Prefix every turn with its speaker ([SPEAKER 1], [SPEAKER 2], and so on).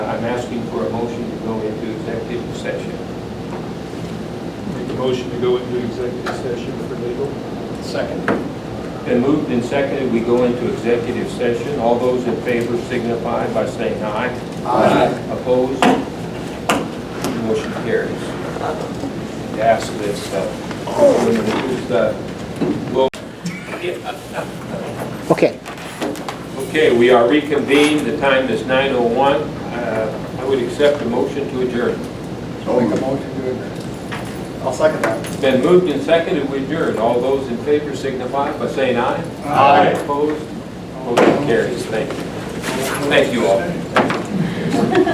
[SPEAKER 1] I'm asking for a motion to go into executive session.
[SPEAKER 2] Make a motion to go into executive session for legal.
[SPEAKER 3] Second.
[SPEAKER 1] Been moved and seconded, we go into executive session. All those in favor signify by saying aye.
[SPEAKER 3] Aye.
[SPEAKER 1] Opposed? Motion carries. Ask this, uh, who's the- well,
[SPEAKER 4] Okay.
[SPEAKER 1] okay, we are reconvened, the time is 9:01. Uh, I would accept a motion to adjourn.
[SPEAKER 3] Make a motion to adjourn. I'll second that.
[SPEAKER 1] It's been moved and seconded, we adjourn. All those in favor signify by saying aye.
[SPEAKER 3] Aye.
[SPEAKER 1] Opposed? Motion carries. Thank you. Thank you all.